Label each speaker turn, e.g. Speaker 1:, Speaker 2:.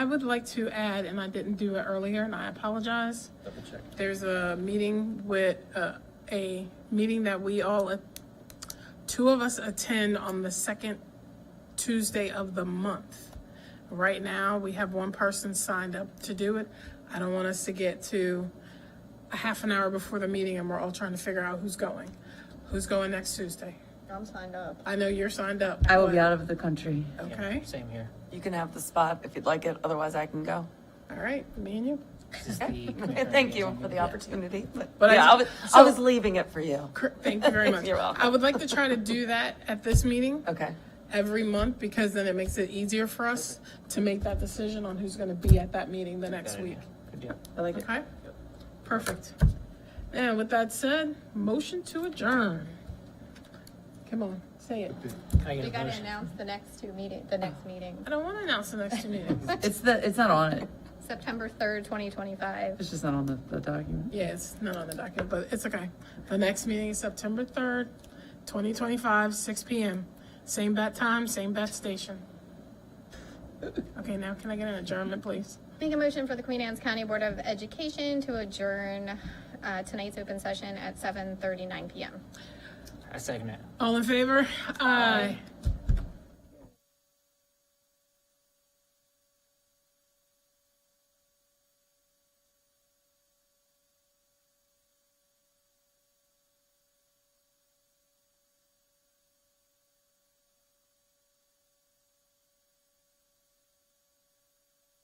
Speaker 1: I would like to add, and I didn't do it earlier, and I apologize.
Speaker 2: Double check.
Speaker 1: There's a meeting with, uh, a meeting that we all, uh, two of us attend on the second Tuesday of the month. Right now, we have one person signed up to do it. I don't want us to get to a half an hour before the meeting and we're all trying to figure out who's going. Who's going next Tuesday?
Speaker 3: I'm signed up.
Speaker 1: I know you're signed up.
Speaker 4: I will be out of the country.
Speaker 1: Okay,
Speaker 2: Same here.
Speaker 5: You can have the spot if you'd like it, otherwise I can go.
Speaker 1: all right, me and you.
Speaker 2: This is the
Speaker 5: Okay? Thank you for the opportunity, but
Speaker 1: But I
Speaker 5: yeah, I was,
Speaker 1: just-
Speaker 5: I
Speaker 1: so-
Speaker 5: was leaving it for you.
Speaker 1: Cor- Thank you very much.
Speaker 5: You're welcome.
Speaker 1: I would like to try to do that at this meeting
Speaker 5: Okay,
Speaker 1: every month because then it makes it easier for us to make that decision on who's gonna be at that meeting the next week.
Speaker 2: Good deal.
Speaker 4: I like it.
Speaker 1: Okay? Perfect. And with that said, motion to adjourn. Come on, say it.
Speaker 2: Can I get
Speaker 3: We
Speaker 2: a
Speaker 3: gotta
Speaker 2: motion?
Speaker 3: announce the next two meeting, the next meeting,
Speaker 1: I don't wanna announce the next two meetings.
Speaker 4: It's the, it's not on it.
Speaker 3: September third, twenty twenty-five.
Speaker 4: It's just not on the, the document.
Speaker 1: Yeah, it's not on the docket, but it's okay. The next meeting is September third, twenty twenty-five, six P M. Same bat time, same bat station. Okay, now can I get an adjournment, please?
Speaker 3: Make a motion for the Queen Anne's County Board of Education to adjourn, uh, tonight's open session at seven thirty-nine PM.
Speaker 2: I second it.
Speaker 1: All in favor? Aye.